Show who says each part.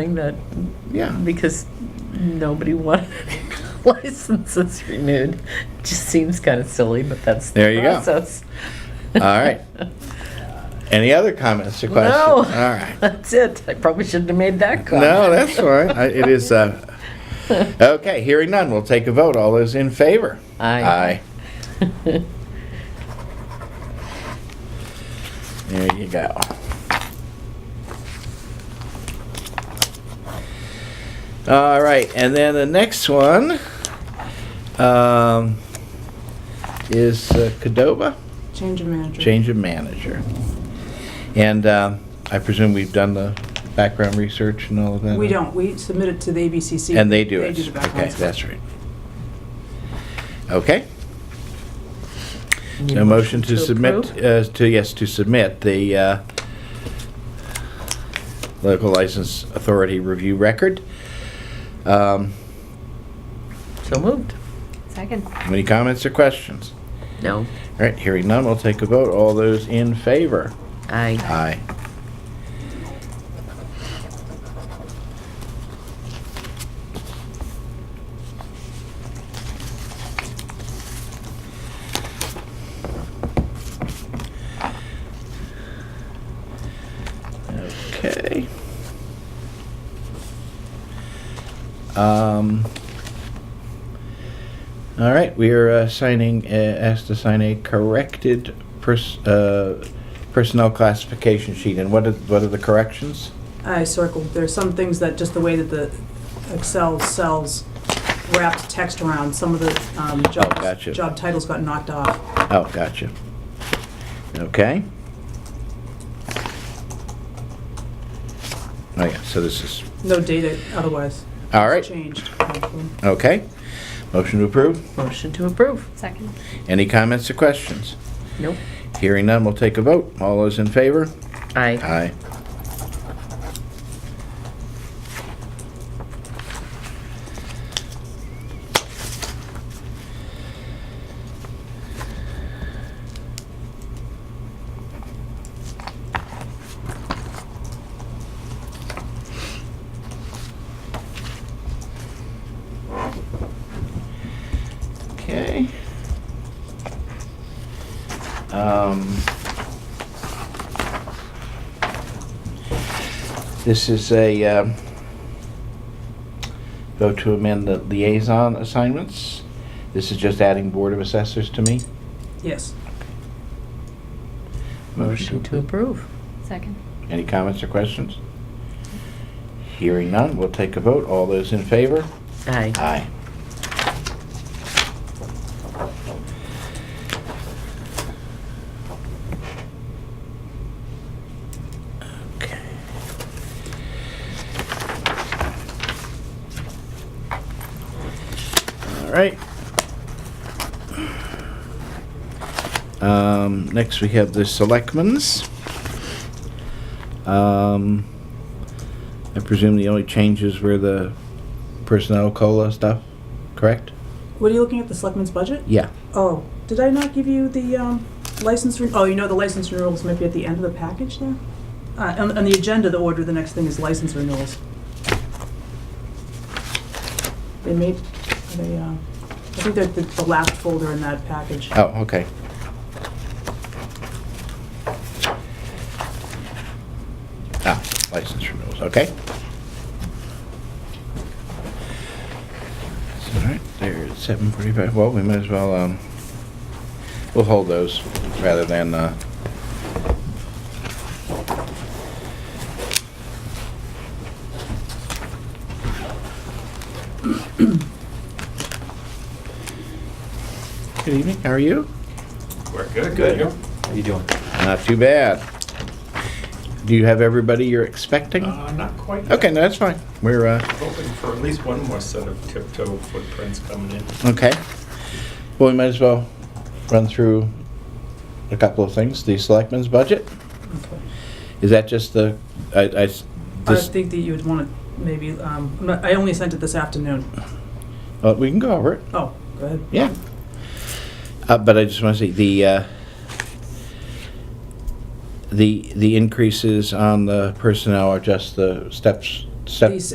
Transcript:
Speaker 1: thing that,
Speaker 2: Yeah.
Speaker 1: because nobody wanted licenses renewed. Just seems kind of silly, but that's
Speaker 2: There
Speaker 1: the
Speaker 2: you go.
Speaker 1: process.
Speaker 2: All right. Any other comments or questions?
Speaker 1: No.
Speaker 2: All right.
Speaker 1: That's it. I probably shouldn't have made that comment.
Speaker 2: No, that's all right. I- It is, uh, okay, hearing none, we'll take a vote. All those in favor?
Speaker 1: Aye.
Speaker 2: Aye. There you go. All right, and then the next one um, is uh, Cadova,
Speaker 3: Change of manager.
Speaker 2: change of manager. And um, I presume we've done the background research and all of that?
Speaker 3: We don't, we submit it to the ABCC.
Speaker 2: And they do it?
Speaker 3: They do the background.
Speaker 2: Okay, that's right. Okay.
Speaker 1: Need
Speaker 2: A motion to submit,
Speaker 1: approve?
Speaker 2: uh, to, yes, to submit the uh, local license authority review record. Um,
Speaker 1: So moved.
Speaker 4: Second.
Speaker 2: Any comments or questions?
Speaker 1: No.
Speaker 2: All right, hearing none, we'll take a vote. All those in favor?
Speaker 1: Aye.
Speaker 2: Aye. Okay. Um. All right, we are uh, signing, uh, asked to sign a corrected pers- uh, personnel classification sheet. And what are, what are the corrections?
Speaker 3: I circled, there's some things that, just the way that the Excel cells wrapped text around, some of the um, jobs,
Speaker 2: Oh, gotcha.
Speaker 3: job titles got knocked off.
Speaker 2: Oh, gotcha. Okay. Oh, yeah, so this is,
Speaker 3: No data otherwise.
Speaker 2: all right,
Speaker 3: Changed.
Speaker 2: okay. Motion to approve.
Speaker 1: Motion to approve.
Speaker 4: Second.
Speaker 2: Any comments or questions?
Speaker 1: Nope.
Speaker 2: Hearing none, we'll take a vote. All those in favor?
Speaker 1: Aye.
Speaker 2: Aye. Okay. Um, This is a um, vote to amend the liaison assignments. This is just adding Board of Assessors to me.
Speaker 3: Yes.
Speaker 1: Motion to approve.
Speaker 4: Second.
Speaker 2: Any comments or questions? Hearing none, we'll take a vote. All those in favor?
Speaker 1: Aye.
Speaker 2: Aye. Okay. All right. Um, next we have the selectmen's. Um, I presume the only changes were the personnel cola stuff, correct?
Speaker 3: What are you looking at, the selectmen's budget?
Speaker 2: Yeah.
Speaker 3: Oh, did I not give you the um, license, re- oh, you know, the license renewals might be at the end of the package there? Uh, On on the agenda, the order, the next thing is license renewals. They made, they, uh, I think they're the the last folder in that package.
Speaker 2: Oh, okay. Ah, license renewals, okay. It's All right, there, it's seven forty-five, well, we might as well, um, we'll hold those rather than, uh, good evening, how are you?
Speaker 5: We're good. Good.
Speaker 6: How you doing?
Speaker 2: Not too bad. Do you have everybody you're expecting?
Speaker 5: Uh, not quite. yet.
Speaker 2: Okay, no, that's fine. We're, uh,
Speaker 5: Hoping for at least one more set of tiptoe footprints coming in.
Speaker 2: okay. Well, we might as well run through a couple of things. The selectmen's budget,
Speaker 3: Okay.
Speaker 2: is that just the, I, I s-
Speaker 3: I
Speaker 2: this,
Speaker 3: think that you would want to maybe, um, I'm not- I only sent it this afternoon.
Speaker 2: oh, we can go over it,
Speaker 3: Oh, go ahead.
Speaker 2: yeah. Uh, but I just want to see, the, uh, the, the increases on the personnel are just the steps
Speaker 7: Sep-
Speaker 2: These